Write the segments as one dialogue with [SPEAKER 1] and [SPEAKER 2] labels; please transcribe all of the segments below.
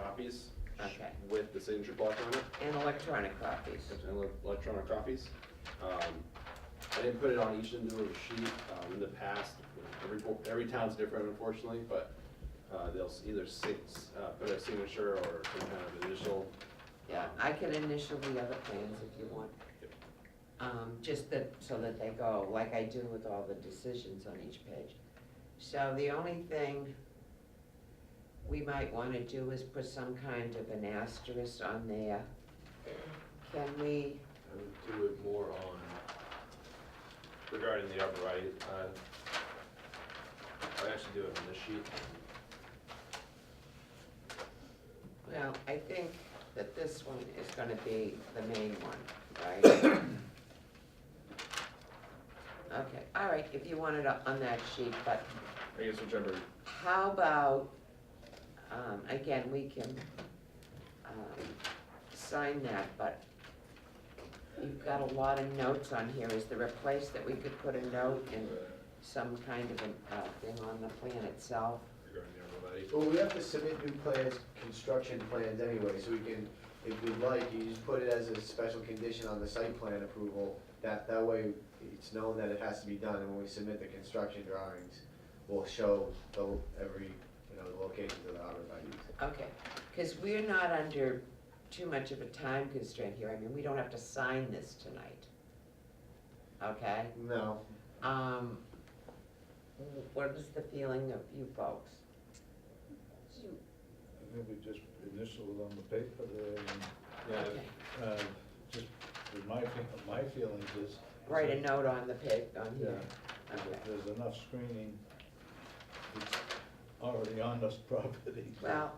[SPEAKER 1] copies
[SPEAKER 2] Okay.
[SPEAKER 1] with the signature block on it.
[SPEAKER 2] And electronic copies.
[SPEAKER 1] There's ele- electronic copies. Um, I didn't put it on each individual sheet. Um, In the past, every, bo- every town's different unfortunately, but uh, they'll s- either six, uh, put a signature or some kind of initial.
[SPEAKER 2] Yeah, I can initial the other plans if you want.
[SPEAKER 1] Yep.
[SPEAKER 2] Um, just that, so that they go, like I do with all the decisions on each page. So the only thing we might wanna do is put some kind of an asterisk on there. Can we,
[SPEAKER 1] Um,
[SPEAKER 3] I would do it more on,
[SPEAKER 1] Regarding the arborvitae, uh, I actually do it on this sheet.
[SPEAKER 2] well, I think that this one is gonna be the main one, right? Okay, all right, if you want it up on that sheet, but
[SPEAKER 1] I guess whichever. uh,
[SPEAKER 2] How about, um, again, we can, um, sign that, but you've got a lot of notes on here, is there a place that we could put a note and some kind of a, uh, thing on the plan itself?
[SPEAKER 1] Regarding the arborvitae.
[SPEAKER 3] well, we have to submit new plans, construction plans anyway, so we can, if we'd like, you just put it as a special condition on the site plan approval. That, that way, it's known that it has to be done, and when we submit the construction drawings, we'll show the, every, you know, the locations of the arborvitae's.
[SPEAKER 2] Okay, cause we're not under too much of a time constraint here, I mean, we don't have to sign this tonight. Okay,
[SPEAKER 3] No,
[SPEAKER 2] um, what is the feeling of you folks?
[SPEAKER 4] I think we just initial it on the paper there, and,
[SPEAKER 1] Yeah,
[SPEAKER 2] Okay.
[SPEAKER 4] uh, just, with my, fe- my feelings is.
[SPEAKER 2] Write a note on the pig, on here.
[SPEAKER 4] Yeah,
[SPEAKER 2] Okay.
[SPEAKER 4] There's enough screening, it's already on this property.
[SPEAKER 2] Well,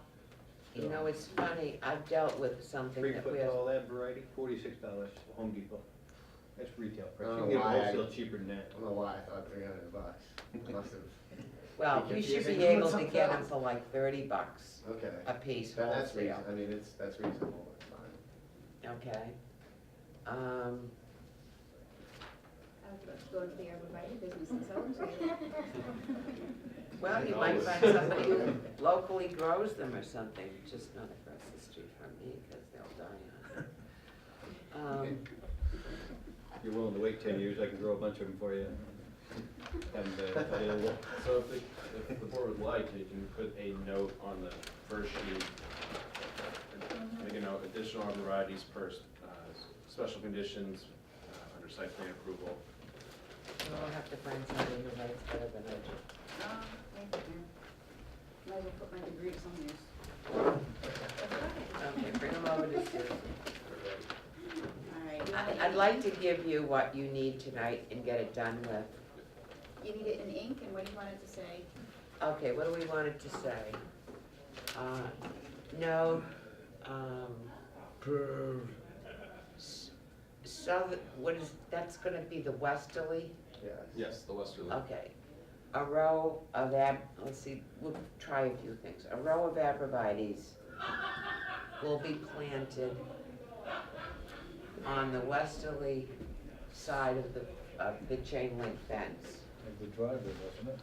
[SPEAKER 2] you know, it's funny, I've dealt with something
[SPEAKER 5] Three
[SPEAKER 2] that we
[SPEAKER 5] foot
[SPEAKER 2] have,
[SPEAKER 5] tall that variety, forty-six dollars, Home Depot. That's retail price.
[SPEAKER 3] I
[SPEAKER 5] You
[SPEAKER 3] don't
[SPEAKER 5] can get
[SPEAKER 3] know why I-
[SPEAKER 5] it wholesale cheaper than that.
[SPEAKER 3] I don't know why I thought three hundred bucks, I must have,
[SPEAKER 2] well,
[SPEAKER 3] Be
[SPEAKER 2] you should be
[SPEAKER 3] confusing.
[SPEAKER 2] able to get them for like thirty bucks
[SPEAKER 3] okay.
[SPEAKER 2] a piece
[SPEAKER 3] That- That's
[SPEAKER 2] wholesale,
[SPEAKER 3] reasonable, I mean, it's, that's reasonable, it's fine.
[SPEAKER 2] okay? Um,
[SPEAKER 6] I would love to go into the arborvitae business and sell them to you.
[SPEAKER 2] well, you
[SPEAKER 3] No,
[SPEAKER 2] might
[SPEAKER 3] it's-
[SPEAKER 2] find somebody who locally grows them or something, just not across the street from me, because they'll die on it. Um,
[SPEAKER 5] If You're willing to wait ten years, I can grow a bunch of them for you. And, uh, available.
[SPEAKER 1] So if the, if the board would like, you can put a note on the first sheet. Make a note, additional varieties per, uh, special conditions, uh, under site plan approval.
[SPEAKER 2] We'll have to find somebody who writes better than I do.
[SPEAKER 6] Oh, thank you. Might as well put my degree somewhere.
[SPEAKER 2] Okay, bring them over to Sue.
[SPEAKER 6] All right. you want
[SPEAKER 2] I-
[SPEAKER 6] it
[SPEAKER 2] I'd
[SPEAKER 6] in
[SPEAKER 2] like
[SPEAKER 6] ink?
[SPEAKER 2] to give you what you need tonight and get it done with.
[SPEAKER 6] You need it in ink, and what do you want it to say?
[SPEAKER 2] Okay, what do we want it to say? Uh, No, um,
[SPEAKER 4] Per,
[SPEAKER 2] s- south, what is, that's gonna be the westerly,
[SPEAKER 3] Yes.
[SPEAKER 1] Yes, the westerly.
[SPEAKER 2] okay. A row of ab, let's see, we'll try a few things. A row of abrevieties will be planted on the westerly side of the, of the chain link fence.
[SPEAKER 4] of the driveway, wasn't it?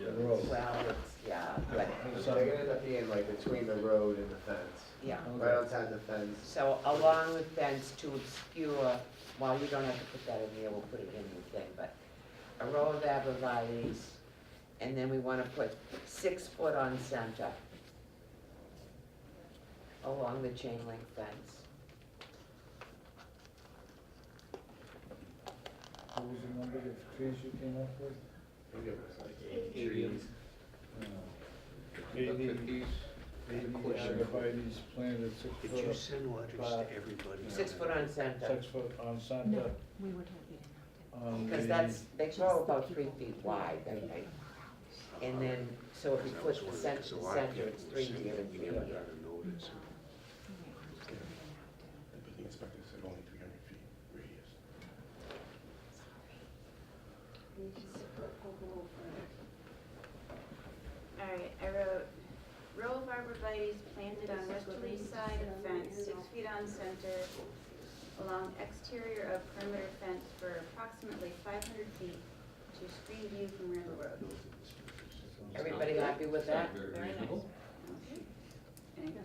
[SPEAKER 1] Yeah.
[SPEAKER 4] The road.
[SPEAKER 2] Well, it's, yeah, but,
[SPEAKER 3] So they're gonna end up being like between the road and the fence.
[SPEAKER 2] yeah.
[SPEAKER 3] Right outside the fence.
[SPEAKER 2] So along the fence to obscure, well, you don't have to put that in there, we'll put it in the thing, but a row of abrevieties, and then we wanna put six foot on center along the chain link fence.
[SPEAKER 4] What was the number of trees you came up with?
[SPEAKER 3] I think it was like
[SPEAKER 5] Trees.
[SPEAKER 4] Uh,
[SPEAKER 5] The
[SPEAKER 4] Eighty,
[SPEAKER 5] cookies.
[SPEAKER 4] eighty
[SPEAKER 5] question.
[SPEAKER 4] arborvitae's planted six
[SPEAKER 7] Did you
[SPEAKER 4] foot,
[SPEAKER 7] send letters
[SPEAKER 4] But-
[SPEAKER 7] to everybody?
[SPEAKER 2] Six foot on center,
[SPEAKER 4] six foot on center,
[SPEAKER 8] We were told we didn't.
[SPEAKER 4] on the.
[SPEAKER 2] because that's, they grow about three feet wide, I think. And then, so if you
[SPEAKER 7] That was
[SPEAKER 2] put
[SPEAKER 7] one
[SPEAKER 2] the
[SPEAKER 7] of
[SPEAKER 2] center
[SPEAKER 7] because a
[SPEAKER 2] to
[SPEAKER 7] lot of
[SPEAKER 2] center, it's
[SPEAKER 7] people
[SPEAKER 2] three
[SPEAKER 7] said
[SPEAKER 2] here and
[SPEAKER 7] we
[SPEAKER 2] three
[SPEAKER 7] never
[SPEAKER 2] here.
[SPEAKER 7] got a notice.
[SPEAKER 8] have
[SPEAKER 7] The building inspector said only three hundred feet radius.
[SPEAKER 6] You can sit for- go- go over. All right, I wrote, row of arborvitae's planted on westerly side of fence, six feet on center, along exterior of perimeter fence for approximately five hundred feet to screen view from Randall Road.
[SPEAKER 2] Everybody happy with that?
[SPEAKER 5] Very
[SPEAKER 6] Very nice.
[SPEAKER 5] reasonable.
[SPEAKER 6] Okay.